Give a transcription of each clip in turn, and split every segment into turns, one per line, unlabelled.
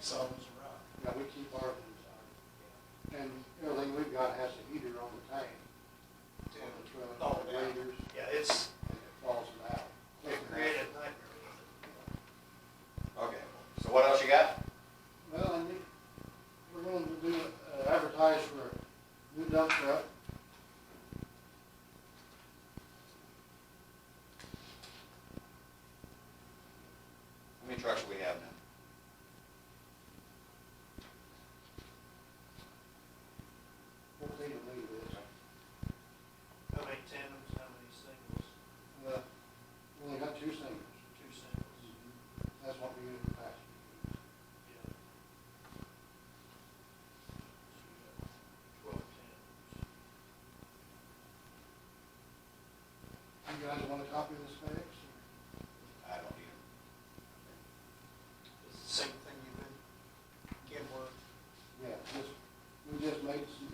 So,
Yeah, we keep ours inside. And everything we've got has a heater on the tank, on the
to
truck,
all
the
down.
radiators,
Oh, Yeah, it's,
and it falls it out.
they created a nightmare with
Okay, so what else you got?
Well, and we- we're going to do, uh, advertise for a new dump truck.
How many trucks do we have now?
Fourteen of these is,
it. How many tandems, how many singles,
uh, we only got two singles.
two singles,
That's what we used in the past.
yeah. So we got Twelve tandems.
You guys want a copy of the specs?
I don't need them.
It's the same thing you've been, getting work.
Yeah, just, we just made some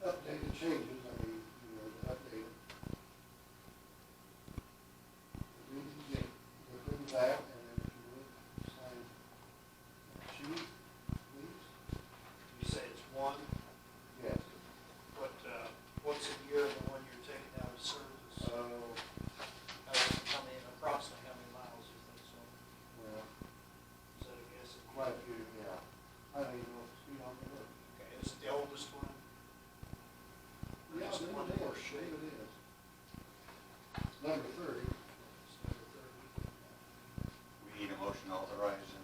updated changes, I mean, you know, the updated. We need to approve that, and then if you would, sign that sheet, please.
You say it's one,
Yes.
what, uh, what's a year of the one you're taking out of service?
So,
How, how many, approximately how many miles do you think so?
well,
Is that a guess?
quite a few, yeah. I don't even know if it's, you know, but.
Okay, is it the oldest one?
Yeah,
Just
there
one
it
more
is,
shape.
there it is. Number thirty.
It's number thirty.
We need a motion authorizing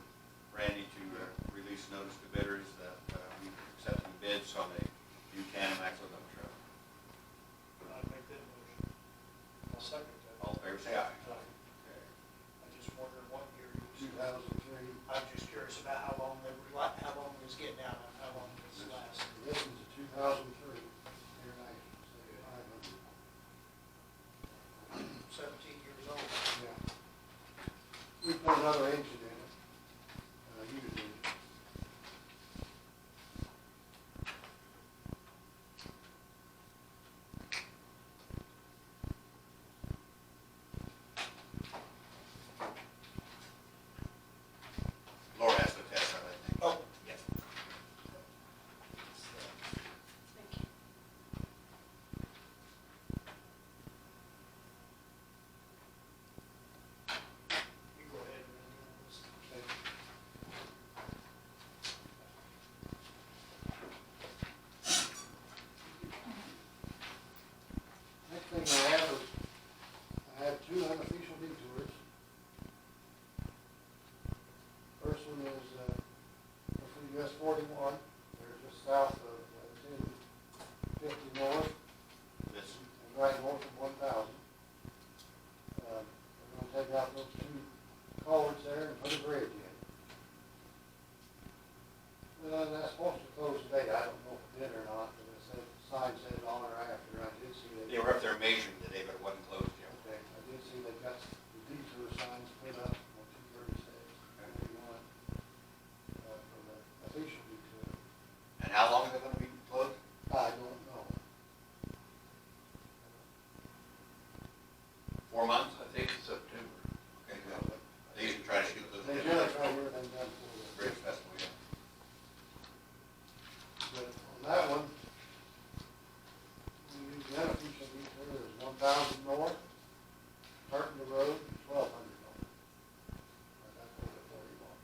Randy to uh, release notice to bidders that uh, we accepting bids on the Buchanan Maxwell dump truck.
I'd make that motion. I'll second that.
All in favor, say aye.
Aye. I just wondered what year you
two
was,
thousand three.
I'm just curious about how long they, were li- how long it was getting out, and how long it's last.
This is a two thousand three, air nice, so five hundred.
Seventeen years old.
Yeah. We put another engine in it, uh, used engine.
Laura has to test that, I think.
Oh, yes. You go ahead and do this.
Okay. Next thing I have is, I have two unofficial detours. First one is, uh, from US forty-one, they're just south of, uh, ten fifty north,
This,
and right north of one thousand. Uh, we're gonna take out those two culverts there and put a bridge in. Uh, that's supposed to close today, I don't know if it did or not, but it said, sign said on or after, I did see that.
they were up there measuring today, but it wasn't closed yet.
Okay, I did see they got the detour signs put up on two thirty-six, thirty-one, uh, for the official detour.
And how long are they gonna be closed?
I don't know.
Four months?
I think it's September.
Okay, good. They usually try to shoot those.
They generally try to get them done for the.
Bridge festival, yeah.
But on that one, we use the other piece of each other, there's one thousand north, Burton the Road, twelve hundred north. And that's where the thirty-one.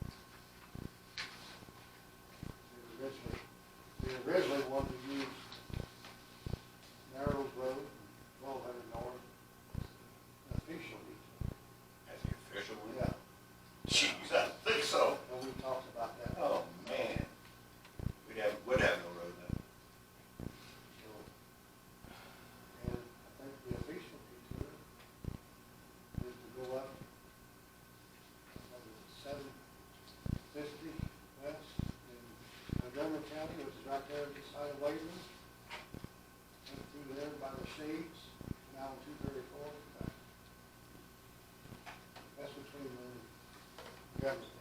We originally, we originally wanted to use Narrows Road, twelve hundred north, officially.
That's the official one?
Yeah,
Jeez, I think so.
and we talked about that.
Oh, man. We'd have, would have no road then.
So, And I think the official detour is to go up, what is it, seven fifty west in Montgomery County, which is right there on the side of Wayland. Up through there by the shades, now two thirty-four. That's between the Government
uh,